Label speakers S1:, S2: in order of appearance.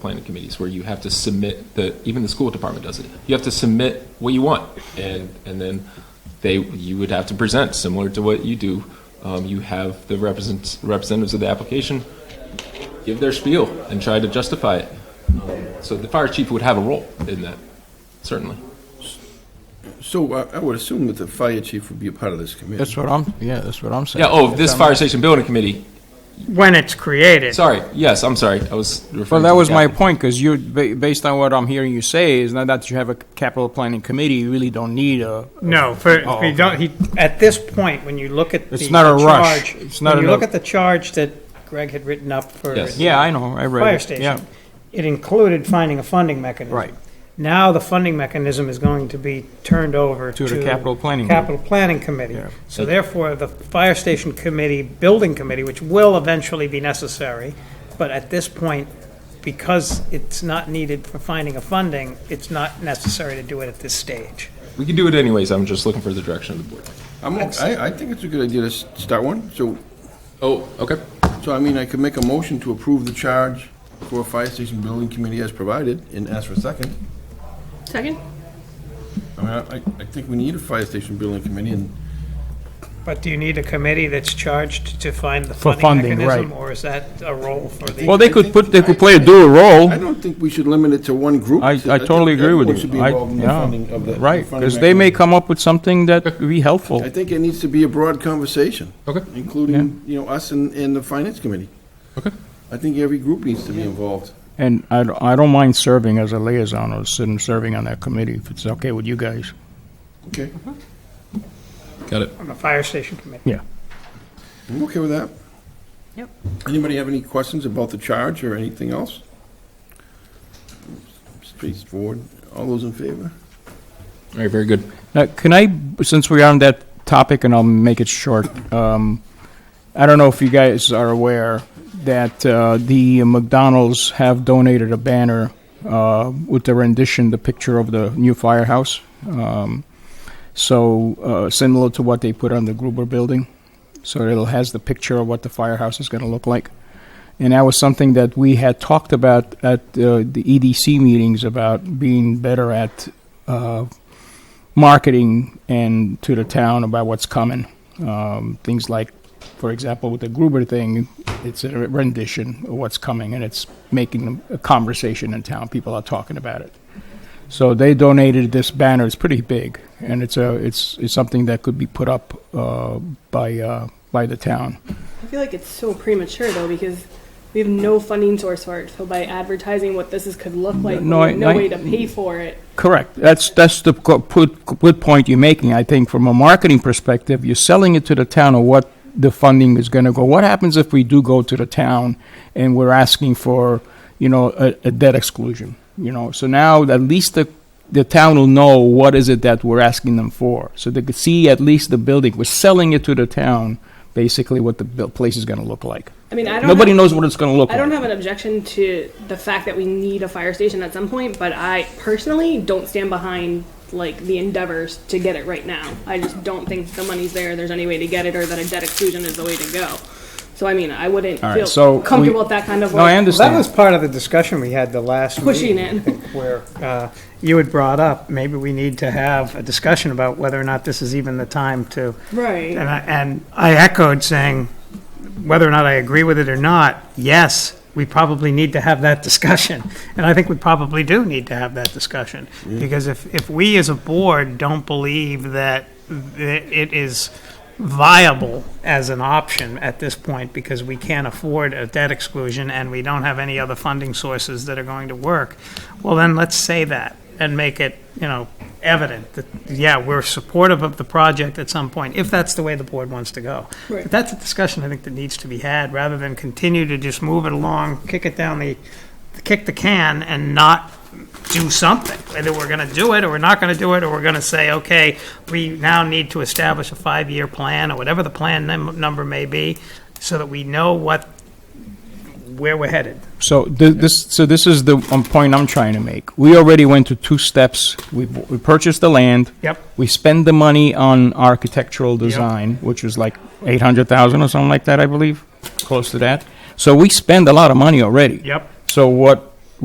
S1: planning committees where you have to submit the, even the school department does it. You have to submit what you want and, and then they, you would have to present similar to what you do. Um, you have the represent, representatives of the application give their spiel and try to justify it. Um, So the fire chief would have a role in that, certainly.
S2: So uh, I I would assume that the fire chief would be a part of this committee.
S3: That's what I'm, yeah, that's what I'm saying.
S1: Yeah, oh, this fire station building committee,
S4: when it's created.
S1: sorry, yes, I'm sorry, I was referring
S3: Well, that
S1: to
S3: was my
S1: Kathy.
S3: point, because you, ba- based on what I'm hearing you say, is not that you have a capital planning committee, you really don't need a,
S4: No, for,
S3: Oh,
S4: we don't, he, at this point, when you look at the
S3: It's not a rush.
S4: charge-
S3: It's not
S4: When
S3: a-
S4: you look at the charge that Greg had written up for
S1: Yes.
S4: the
S3: yeah, I know, I read it.
S4: fire
S3: Yeah.
S4: station, it included finding a funding mechanism.
S3: Right.
S4: Now, the funding mechanism is going to be turned over
S3: To
S4: to.
S3: the capital planning group.
S4: Capital Planning Committee.
S3: Yeah.
S4: So therefore, the fire station committee, building committee, which will eventually be necessary, but at this point, because it's not needed for finding a funding, it's not necessary to do it at this stage.
S1: We can do it anyways, I'm just looking for the direction of the board.
S2: I'm, o- I, I think it's a good idea to s- start one, so,
S1: Oh, okay.
S2: so I mean, I could make a motion to approve the charge for a fire station building committee as provided, and ask for a second.
S5: Second?
S2: I mean, I, I think we need a fire station building committee, and
S4: But do you need a committee that's charged to find the
S3: For
S4: funding
S3: funding,
S4: mechanism?
S3: right.
S4: Or is that a role for the?
S3: Well, they could put, they could play a dual role.
S2: I don't think we should limit it to one group.
S3: I, I totally agree with you.
S2: Everyone should be
S3: I-
S2: involved in the
S3: yeah,
S2: funding of the.
S3: Right,
S2: funding
S3: because they may
S2: mechanism.
S3: come up with something that would be helpful.
S2: I think it needs to be a broad conversation.
S1: Okay.
S2: Including, you know, us and, and the finance committee.
S1: Okay.
S2: I think every group needs to be involved.
S3: And I, don't- I don't mind serving as a liaison or sitting, serving on that committee, if it's okay with you guys.
S2: Okay,
S1: Got it.
S4: On the fire station committee?
S3: Yeah.
S2: I'm okay with that.
S5: Yep.
S2: Anybody have any questions about the charge or anything else? Straightforward. All those in favor?
S1: All right, very good.
S3: Now, can I, since we are on that topic, and I'll make it short, um, I don't know if you guys are aware that uh, the McDonald's have donated a banner uh, with the rendition, the picture of the new firehouse. Um, so uh, similar to what they put on the Gruber building. So it'll has the picture of what the firehouse is going to look like. And that was something that we had talked about at uh, the EDC meetings about being better at uh, marketing and to the town about what's coming. Um, things like, for example, with the Gruber thing, it's a rendition of what's coming, and it's making a conversation in town. People are talking about it. So they donated this banner. It's pretty big, and it's a it's, it's something that could be put up uh, by uh, by the town.
S5: I feel like it's so premature though because we have no funding source for it. So by advertising what this is, could look like,
S3: No,
S5: we have
S3: I-
S5: no
S3: I-
S5: way to pay for it.
S3: Correct. That's, that's the co- put- good point you're making. I think from a marketing perspective, you're selling it to the town of what the funding is going to go. What happens if we do go to the town and we're asking for, you know, a, a debt exclusion? You know, so now at least the, the town will know what is it that we're asking them for. So they could see at least the building. We're selling it to the town, basically what the buil- place is going to look like.
S5: I mean, I don't.
S3: Nobody
S5: have,
S3: knows what it's going to look
S5: I don't
S3: like.
S5: have an objection to the fact that we need a fire station at some point, but I personally don't stand behind like the endeavors to get it right now. I just don't think the money's there. There's any way to get it, or that a debt exclusion is the way to go. So I mean, I wouldn't
S3: All right,
S5: feel
S3: so we-
S5: comfortable with that kind of.
S3: No, I
S5: like,
S4: That
S3: understand.
S4: was part of the discussion we had the last
S5: Pushing
S4: meeting,
S5: it.
S4: I think, Where uh, you had brought up, maybe we need to have a discussion about whether or not this is even the time to
S5: Right.
S4: And I, and I echoed saying, whether or not I agree with it or not, yes, we probably need to have that discussion. And I think we probably do need to have that discussion. Because if, if we as a board don't believe that th- it is viable as an option at this point because we can't afford a debt exclusion and we don't have any other funding sources that are going to work, well, then let's say that and make it, you know, evident that, yeah, we're supportive of the project at some point, if that's the way the board wants to go.
S5: Right.
S4: But that's a discussion I think that needs to be had, rather than continue to just move it along, kick it down the, kick the can and not do something. Either we're going to do it, or we're not going to do it, or we're going to say, okay, we now need to establish a five-year plan, or whatever the plan num- number may be, so that we know what, where we're headed.
S3: So th- this, so this is the um, point I'm trying to make. We already went to two steps. We, b- we purchased the land.
S4: Yep.
S3: We spend the money on architectural design, which was like eight hundred thousand or something like that, I believe, close to that. So we spend a lot of money already.
S4: Yep.
S3: So what